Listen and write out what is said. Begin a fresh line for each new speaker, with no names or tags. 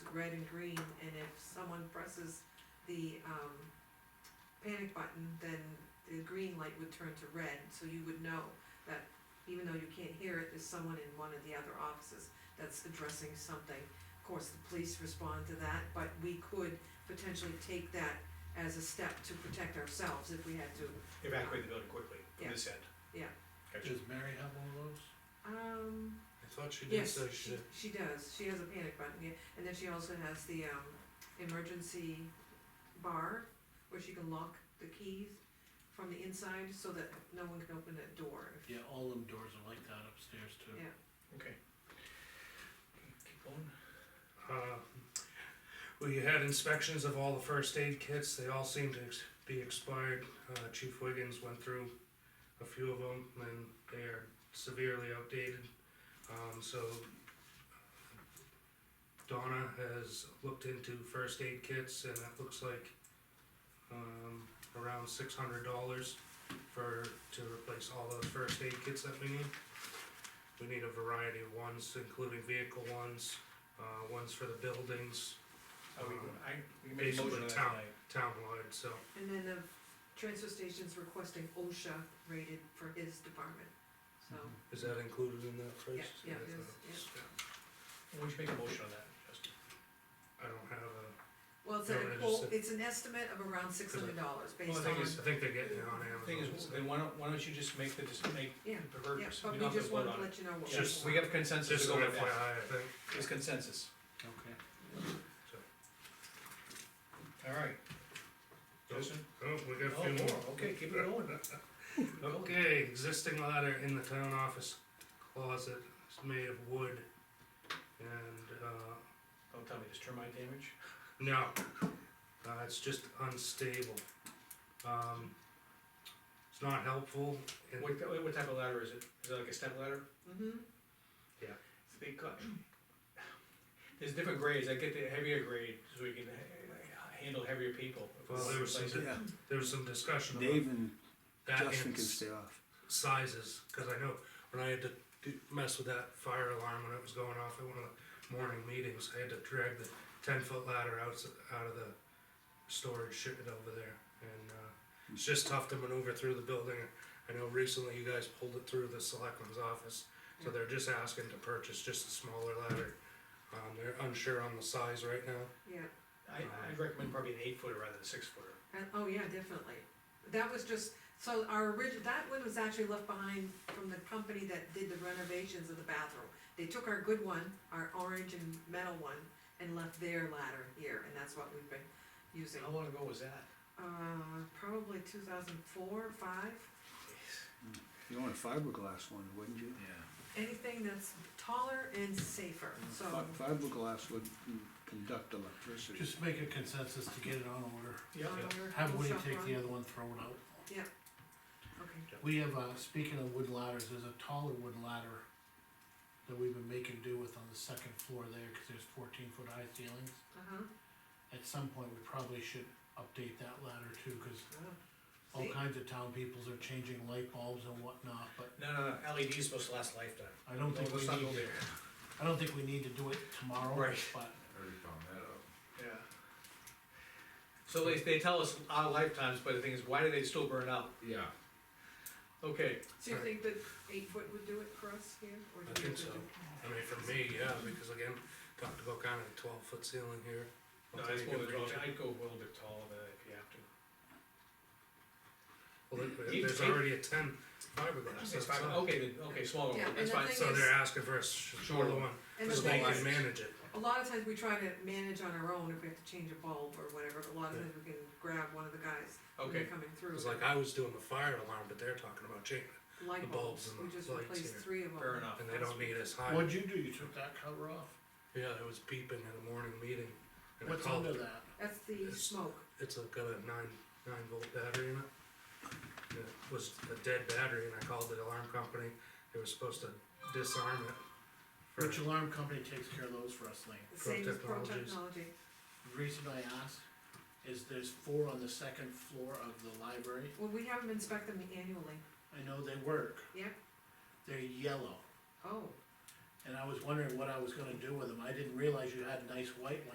red and green, and if someone presses the, um, panic button, then the green light would turn to red, so you would know that even though you can't hear it, there's someone in one of the other offices that's addressing something. Of course, the police respond to that, but we could potentially take that as a step to protect ourselves if we had to.
evacuate the building quickly from
Yeah.
this end.
Yeah.
Gotcha.
Does Mary have one of those?
Um,
I thought she
yes, she, she does, she has a panic button, yeah, and then she also has the, um, emergency bar, where she can lock the keys from the inside, so that no one can open that door.
Yeah, all them doors are like that upstairs too.
Yeah.
Okay. Keep going.
Uh, We had inspections of all the first aid kits, they all seemed to ex- be expired. Uh, Chief Wiggins went through a few of them, and they are severely outdated. Um, so uh, Donna has looked into first aid kits, and it looks like, um, around six hundred dollars for, to replace all those first aid kits that we need. We need a variety of ones, including vehicle ones, uh, ones for the buildings,
Are we, I, we can make a
Basically
motion on that
town.
tonight.
townwide, so.
And then the transfer station's requesting OSHA rated for his department, so,
Mhm.
Is that included in that price?
Yeah, yeah, it is,
yeah.
We should make a motion on that, Justin.
I don't have a,
well, it's a,
Yeah, I just
quote-
said-
it's an estimate of around six hundred dollars, based on.
thing is-
I think they're getting it on
Thing
Amazon.
is,
so.
then why don't, why don't you just make the, just make
Yeah,
the verdict,
yeah, but
we don't
we
have to
just
vote
wanted
on
to
it.
let you know what.
Just, we have consensus to
Just
go
an FYI,
with that,
I think,
it's consensus,
Okay.
alright. Justin?
oh, we got a
Oh,
few more.
more, okay, keep it going. Oh.
Okay, existing ladder in the town office closet, it's made of wood. And, uh,
Don't Oh, tell me, there's termite damage?
No, uh, it's just unstable. Um, it's not helpful. It-
What, what what type of ladder is it? Is it like a step ladder?
Mm-hmm,
They got, there's different grades, I get the heavier grade, so we can ha- handle heavier people.
Well, there was some,
Yeah,
there was some discussion
Dave
about
and
that
Justin
and
can
s-
stay off.
sizes, cause I know when I had to do, mess with that fire alarm when it was going off at one of the morning meetings, I had to drag the ten foot ladder out, s- out of the storage, ship it over there. And, uh, it's just tough to maneuver through the building. I know recently you guys pulled it through the selectman's office, so they're just asking to purchase just a smaller ladder. Um, they're unsure on the size right now.
yeah.
I, I'd recommend probably an eight footer rather than a six footer.
And, oh, yeah, definitely. That was just, so our original, that one was actually left behind from the company that did the renovations of the bathroom. They took our good one, our orange and metal one, and left their ladder here, and that's what we've been using.
How long ago was that?
Uh, probably two thousand four, five,
You want a fiberglass one, wouldn't you?
anything that's taller and safer,
Mm,
so.
Fi- Fiberglass would mm, conduct electricity.
Just make a consensus to get it on order.
Yeah.
uh, we're-
Have
we'll
Woody
shop
take
around.
the other one, throw it out.
Okay,
We have, uh, speaking of wood ladders, there's a taller wood ladder that we've been making do with on the second floor there, cause there's fourteen foot high ceilings.
uh-huh,
At some point, we probably should update that ladder too, cause
Oh,
all
see?
kinds of town peoples are changing light bulbs and whatnot, but
No, no, no, LED is supposed to last a lifetime.
I don't think we
Let's not go
need,
there.
I don't think we need to do it tomorrow,
Right.
but
Yeah. So they, they tell us our lifetimes, but the thing is, why do they still burn out?
Yeah,
Okay,
so you think that eight foot would do it for us here, or do
I
you
think
have to
so.
do?
I mean, for me, yeah, because again, talked about kind of a twelve foot ceiling here.
no, that's more than twelve, I'd go a little bit taller than that if you have to.
Well, there-
You
there's
take-
already a ten fiberglass, that's all.
Okay, then, okay, smaller
Yeah,
one,
and
that's
the
fine.
thing
So they're asking for a sh- shorter one,
And the
so they
thing is-
can manage it.
A lot of times we try to manage on our own if we have to change a bulb or whatever, but a lot of times we can grab one of the guys when they're
Okay,
coming through.
Cause like I was doing the fire alarm, but they're talking about changing,
Light
the
bulbs,
bulbs and
we
the
just
lights
replaced
here.
three of them.
fair enough.
and they don't need as high.
what'd you do, you took that cover off?
Yeah, it was beeping at a morning meeting. and I
What's
called-
under that?
That's the
It's-
smoke,
It's a, got a nine, nine volt battery in it. And It was a dead battery and I called the alarm company, they were supposed to disarm it. for-
Which alarm company takes care of those for us, Lean?
the
Pro
same as Pro
Technologies.
Technology,
The Reason I ask is there's four on the second floor of the library.
well, we have them inspect them annually,
I know they work.
Yeah.
They're yellow,
oh.
and I was wondering what I was gonna do with them. I didn't realize you had nice white ones.